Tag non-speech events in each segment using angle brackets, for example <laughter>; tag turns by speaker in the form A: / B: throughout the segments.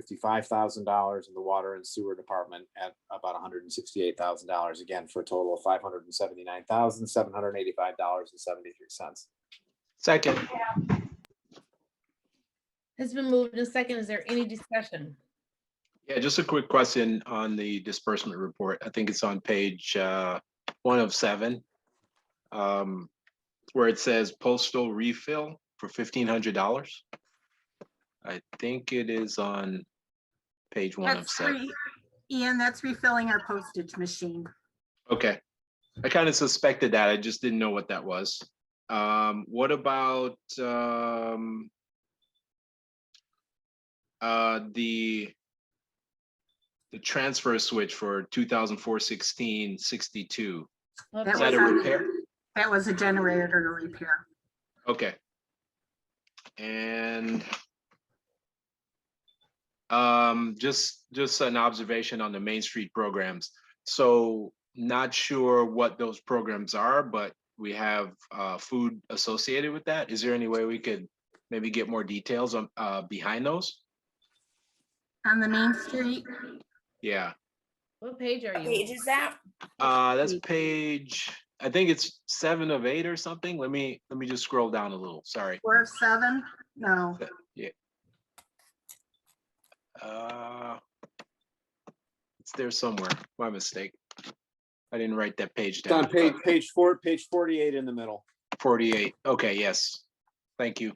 A: fifty-five thousand dollars in the water and sewer department at about hundred and sixty-eight thousand dollars, again, for a total of five hundred and seventy-nine thousand, seven hundred and eighty-five dollars and seventy-three cents.
B: Second,
C: It's been moved in second. Is there any discussion?
B: yeah, just a quick question on the disbursement report. I think it's on page uh, one of seven. um, Where it says postal refill for fifteen hundred dollars. I think it is on page one of
D: That's
B: seven.
D: re- Ian, that's refilling our postage machine.
B: Okay. I kind of suspected that. I just didn't know what that was. Um, what about, um, uh, the, the transfer switch for 2004-16-62.
C: Well,
D: That
B: Is that
D: was
B: a
D: on-
B: repair?
D: That was a generator to repair.
B: Okay. And um, just, just an observation on the Main Street programs. So not sure what those programs are, but we have uh, food associated with that. Is there any way we could maybe get more details on, uh, behind those?
D: On the main street,
B: Yeah,
C: What page are
E: Page
C: you?
E: is that?
B: uh, that's page, I think it's seven of eight or something. Let me, let me just scroll down a little, sorry.
D: four of seven, no,
B: Uh It's there somewhere. My mistake. I didn't write that page
A: It's on
B: down.
A: page, page four, page forty-eight in the middle.
B: Forty-eight. Okay, yes. Thank you.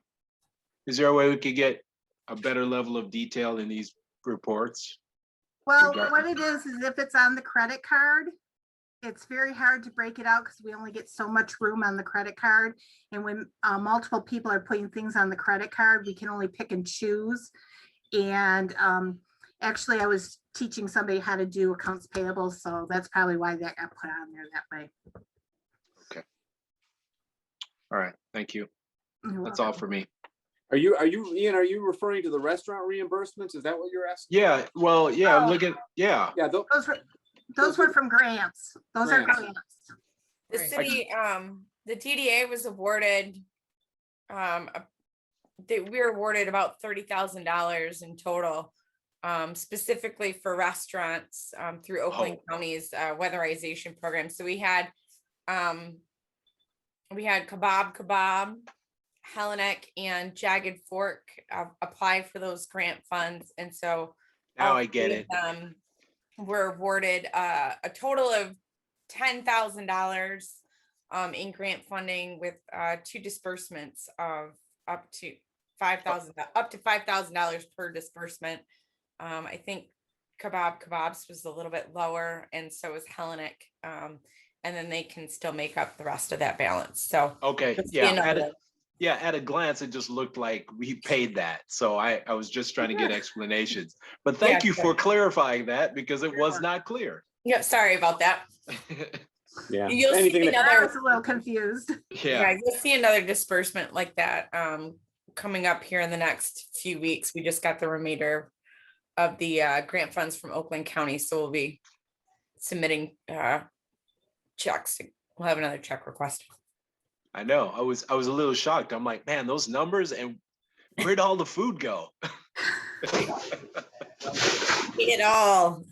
B: Is there a way we could get a better level of detail in these reports?
D: Well,
B: got-
D: what it is, is if it's on the credit card, it's very hard to break it out because we only get so much room on the credit card. And when uh, multiple people are putting things on the credit card, we can only pick and choose. And um, actually, I was teaching somebody how to do accounts payable, so that's probably why that got put on there that way.
B: All right, thank you.
D: You're
B: That's all
D: welcome.
B: for me.
A: Are you, are you, Ian, are you referring to the restaurant reimbursements? Is that what you're asking?
B: Yeah, well, yeah, I'm
D: Oh.
B: looking, yeah,
A: Yeah, tho-
D: Those were, those were from grants. Those are
A: Grants.
D: grants.
E: The
C: Right.
E: city, um, the TDA was awarded, um, a- they, we were awarded about thirty thousand dollars in total, um, specifically for restaurants, um, through Oakland County's, uh, weatherization program. So we had, um, we had Kebab Kebab, Hellenic and Jagged Fork, uh, apply for those grant funds. And so
B: now
E: all
B: I get
E: three of
B: it.
E: them Were awarded uh, a total of ten thousand dollars um, in grant funding with uh, two disbursements of up to five thousand, up to five thousand dollars per disbursement. Um, I think Kebab Kebabs was a little bit lower and so was Hellenic. um, And then they can still make up the rest of that balance. So.
B: Okay,
E: it's
B: yeah,
E: been
B: at
E: a-
B: a, yeah, at a glance, it just looked like we paid that. So I, I was just trying to get explanations. But thank
E: Yeah,
B: you for clarifying that because it was
D: Sure.
B: not clear. <laughs>
E: Yeah, sorry about that.
A: yeah.
E: You'll see
A: Anything that-
E: another-
D: I was a little confused.
B: Yeah,
E: Yeah, you'll see another disbursement like that um coming up here in the next few weeks. We just got the remainder of the uh grant funds from Oakland County, so we'll be submitting uh checks. We'll have another check request.
B: I know. I was, I was a little shocked. I'm like, man, those numbers and where'd all the food go? <laughs>
E: It all.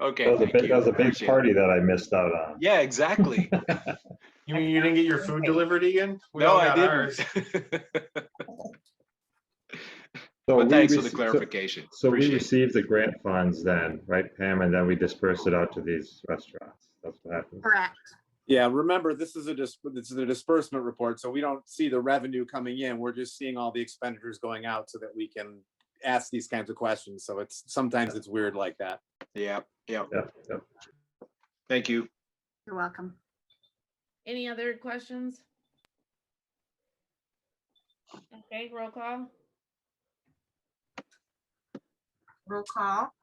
B: Okay.
F: That was a
B: thank
F: big,
B: you.
F: that was a big
B: Appreciate it.
F: party that I missed out on.
B: Yeah,
F: <laughs>
B: exactly.
G: You mean you didn't get your food delivered again? We
B: No,
G: all
B: I
G: got
B: <laughs>
G: ours.
B: didn't.
F: So
B: But
F: we
B: thanks for the
F: rece- so-
B: clarification.
F: So we
B: Appreciate it.
F: received the grant funds then, right, Pam? And then we dispersed it out to these restaurants. That's what happened.
D: Correct.
A: Yeah, remember, this is a dis, this is a disbursement report, so we don't see the revenue coming in. We're just seeing all the expenditures going out so that we can ask these kinds of questions. So it's, sometimes it's weird like that.
B: Yeah, yeah.
F: Yep, yep.
B: Thank you.
D: You're welcome.
C: Any other questions? Okay, roll call.
D: Roll call.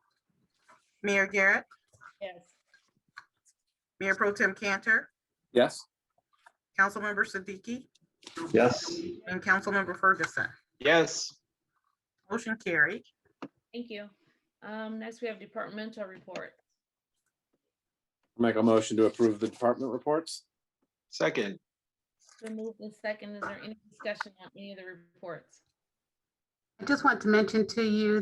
D: Mayor Garrett,
C: Yes.
D: Mayor Pro Tem Cantor,
A: Yes?
D: Councilmember Siddiqui,
F: Yes,
D: and Councilmember Ferguson.
B: Yes,
D: Motion carried.
C: Thank you. Um, next we have departmental report.
A: Make a motion to approve the department reports?
B: second.
C: It's been moved in second. Is there any discussion on any of the reports?
D: I just want to mention to you